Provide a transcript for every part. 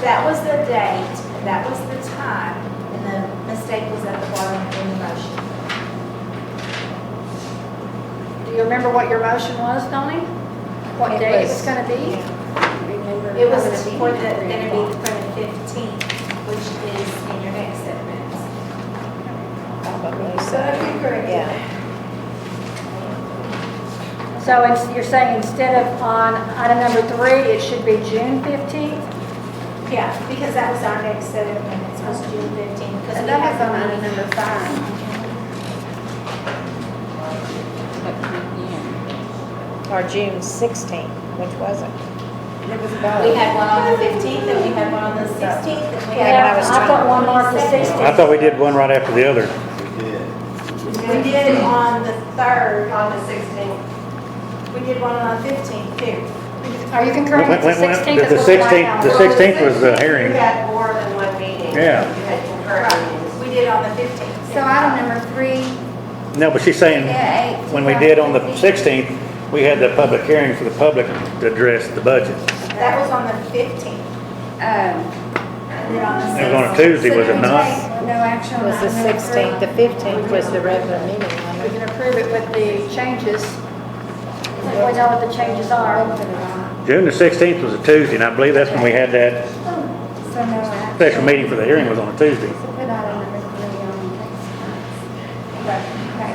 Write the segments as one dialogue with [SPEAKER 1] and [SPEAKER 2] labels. [SPEAKER 1] that was the date, that was the time, and the mistake was at the bottom in the motion.
[SPEAKER 2] Do you remember what your motion was, Donnie? What
[SPEAKER 3] It
[SPEAKER 2] day it was
[SPEAKER 3] was-
[SPEAKER 2] gonna be?
[SPEAKER 3] Remember
[SPEAKER 1] It was
[SPEAKER 3] how
[SPEAKER 1] for the,
[SPEAKER 3] meeting
[SPEAKER 1] gonna be for the fifteenth, which is in your next set of minutes.
[SPEAKER 3] Probably
[SPEAKER 1] So
[SPEAKER 3] so.
[SPEAKER 1] I think we're
[SPEAKER 3] Yeah.
[SPEAKER 2] So it's- you're saying instead of on item number three, it should be June fifteenth?
[SPEAKER 1] Yeah, because that was our next set of minutes, was June fifteenth.
[SPEAKER 3] And that was on item number five. Or June sixteenth, which was it? It was both.
[SPEAKER 1] We had one on the fifteenth, and we had one on the sixteenth, and we had.
[SPEAKER 3] Yeah, but I was
[SPEAKER 2] I thought
[SPEAKER 3] trying-
[SPEAKER 2] one marked the
[SPEAKER 1] 22nd.
[SPEAKER 2] sixteenth.
[SPEAKER 4] I thought we did one right after the other.
[SPEAKER 5] We did.
[SPEAKER 1] We did on the third,
[SPEAKER 6] On the 16th.
[SPEAKER 1] we did one on the fifteenth too.
[SPEAKER 2] Are you concurring
[SPEAKER 4] When-
[SPEAKER 2] with the
[SPEAKER 4] when- when-
[SPEAKER 2] sixteenth?
[SPEAKER 4] The 16th, the 16th was the
[SPEAKER 6] You
[SPEAKER 4] hearing.
[SPEAKER 6] had more than one meeting.
[SPEAKER 4] Yeah.
[SPEAKER 6] You had concurrent
[SPEAKER 1] Right,
[SPEAKER 6] meetings.
[SPEAKER 1] we did on the fifteenth.
[SPEAKER 3] So item number three,
[SPEAKER 4] No, but she's saying,
[SPEAKER 3] yeah, eight. Um,
[SPEAKER 4] when we did on the 16th, we had the public hearing for the public to address the budget.
[SPEAKER 1] That was on the fifteenth.
[SPEAKER 3] Um,
[SPEAKER 1] And then on the
[SPEAKER 4] It was on a
[SPEAKER 1] 16th.
[SPEAKER 4] Tuesday, was it not?
[SPEAKER 3] No action
[SPEAKER 2] It
[SPEAKER 3] on
[SPEAKER 2] was the
[SPEAKER 3] item number three.
[SPEAKER 2] 16th.
[SPEAKER 7] The 15th was the regular meeting,
[SPEAKER 2] We
[SPEAKER 7] wasn't it?
[SPEAKER 2] can approve it with the changes. We know what the changes are.
[SPEAKER 4] June the 16th was a Tuesday, and I believe that's when we had that
[SPEAKER 3] So no action.
[SPEAKER 4] special meeting for the hearing was on a Tuesday.
[SPEAKER 3] So put item number three on next. Okay.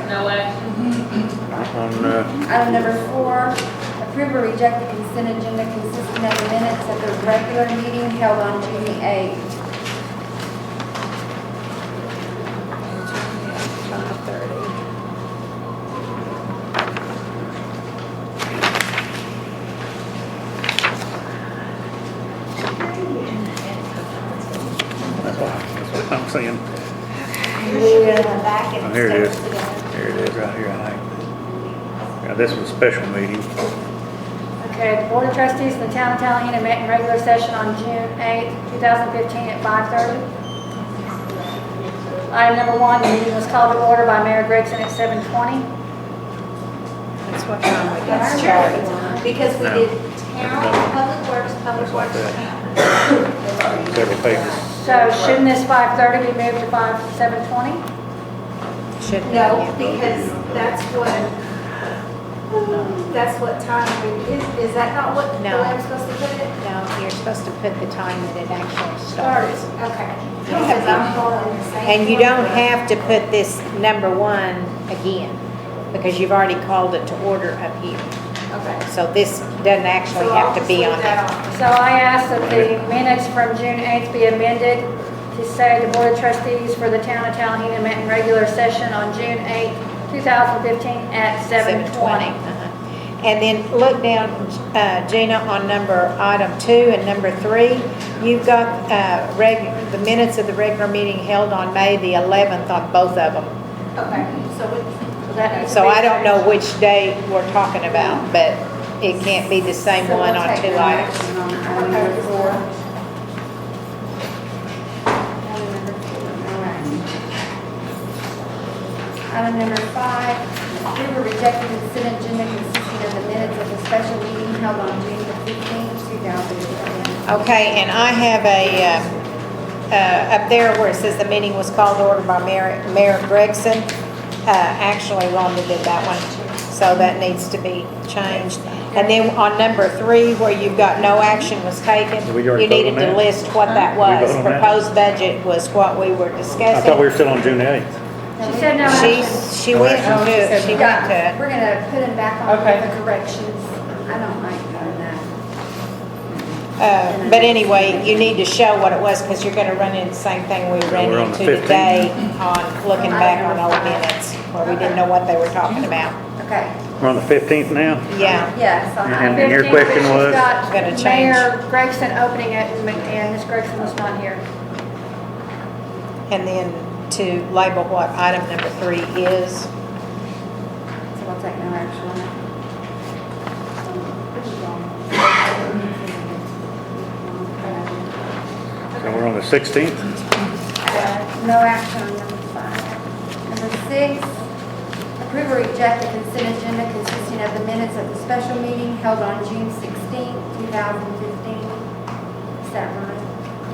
[SPEAKER 8] No action.
[SPEAKER 4] On, uh,
[SPEAKER 3] Item number four, approve or reject the consent agenda consisting of the minutes of the regular meeting held on June the 8th.
[SPEAKER 4] that's what that's what I'm saying.
[SPEAKER 1] You should go in the back and
[SPEAKER 4] Oh, here it
[SPEAKER 1] stick it
[SPEAKER 4] is.
[SPEAKER 1] together.
[SPEAKER 4] Here it is, right here, I think. Yeah, this was a special meeting.
[SPEAKER 2] Okay, the Board of Trustees of the Town of Tallahassee met in regular session on June 8, 2015 at 5:30. Item number one, the meeting was called to order by Mayor Gregson at 7:20.
[SPEAKER 7] That's what time we got
[SPEAKER 1] That's
[SPEAKER 7] started.
[SPEAKER 1] true, because we
[SPEAKER 4] No.
[SPEAKER 1] did town, public works, public works.
[SPEAKER 4] Several pages.
[SPEAKER 2] So shouldn't this 5:30 be moved to 5, 7:20?
[SPEAKER 7] Shouldn't
[SPEAKER 1] No,
[SPEAKER 7] it?
[SPEAKER 1] because that's what, that's what time, we- is, is that not what, the way
[SPEAKER 7] No.
[SPEAKER 1] I'm supposed to put it?
[SPEAKER 7] No, you're supposed to put the time that it actually
[SPEAKER 1] Starts,
[SPEAKER 7] starts.
[SPEAKER 1] okay. Because I'm following the same.
[SPEAKER 7] And you don't
[SPEAKER 1] formula.
[SPEAKER 7] have to put this number one again, because you've already called it to order up here.
[SPEAKER 1] Okay.
[SPEAKER 7] So this doesn't actually
[SPEAKER 1] So I'll
[SPEAKER 7] have to
[SPEAKER 1] just
[SPEAKER 7] be
[SPEAKER 1] leave
[SPEAKER 7] on
[SPEAKER 1] that
[SPEAKER 7] there.
[SPEAKER 1] on.
[SPEAKER 2] So I ask that the minutes from June 8th be amended to say the Board of Trustees for the Town of Tallahassee met in regular session on June 8, 2015 at 7:20.
[SPEAKER 7] uh-huh. And then look down, uh, Gina, on number, item two and number three. You've got uh, reg- the minutes of the regular meeting held on May the 11th on both of them.
[SPEAKER 1] Okay, so we,
[SPEAKER 2] So that needs to
[SPEAKER 7] So
[SPEAKER 2] be
[SPEAKER 7] I don't know
[SPEAKER 2] changed.
[SPEAKER 7] which day we're talking about, but it can't be the same
[SPEAKER 3] So we'll
[SPEAKER 7] one on
[SPEAKER 3] take Um,
[SPEAKER 7] two
[SPEAKER 3] no
[SPEAKER 7] items.
[SPEAKER 3] action on Item number four. Item number four, no action. Item number five, approve or reject the consent agenda consisting of the minutes of the special meeting held on June the 15th, 2015.
[SPEAKER 7] Okay, and I have a, uh, uh, up there where it says the meeting was called to order by Mayor Mayor Gregson. Uh, Actually, Rhonda did that one, so that needs to be changed. And then on number three, where you've got no action was taken,
[SPEAKER 4] Did we already
[SPEAKER 7] you
[SPEAKER 4] vote
[SPEAKER 7] needed
[SPEAKER 4] on
[SPEAKER 7] to
[SPEAKER 4] that?
[SPEAKER 7] list what that
[SPEAKER 4] we
[SPEAKER 7] was.
[SPEAKER 4] vote on that?
[SPEAKER 7] Proposed budget was what we were
[SPEAKER 4] I thought we
[SPEAKER 7] discussing.
[SPEAKER 4] were still on June 8th.
[SPEAKER 2] She said no
[SPEAKER 7] She,
[SPEAKER 2] action.
[SPEAKER 7] she went
[SPEAKER 4] Corrections.
[SPEAKER 7] to, it. she went to. it.
[SPEAKER 3] Yeah, we're gonna put them back on
[SPEAKER 7] Okay.
[SPEAKER 3] with the corrections. I don't like doing that.
[SPEAKER 7] Uh, But anyway, you need to show what it was, because you're gonna run into the same thing we ran
[SPEAKER 4] we're on the
[SPEAKER 7] into
[SPEAKER 4] 15.
[SPEAKER 7] today on looking back on old minutes, where we didn't know what they were talking about.
[SPEAKER 3] Okay,
[SPEAKER 4] We're on the 15th now?
[SPEAKER 7] Yeah,
[SPEAKER 3] yeah, so I-
[SPEAKER 4] And then your
[SPEAKER 2] 15th,
[SPEAKER 4] question
[SPEAKER 2] she's
[SPEAKER 4] was?
[SPEAKER 2] got
[SPEAKER 7] Gonna change.
[SPEAKER 2] Mayor Gregson opening it and and Ms. Gregson was not here.
[SPEAKER 7] and then to label what item number three is.
[SPEAKER 3] so we'll take no action on that.
[SPEAKER 4] So we're on the 16th?
[SPEAKER 3] Uh, No action on number five. Number six, approve or reject the consent agenda consisting of the minutes of the special meeting held on June sixteenth, two thousand fifteen. Is that right?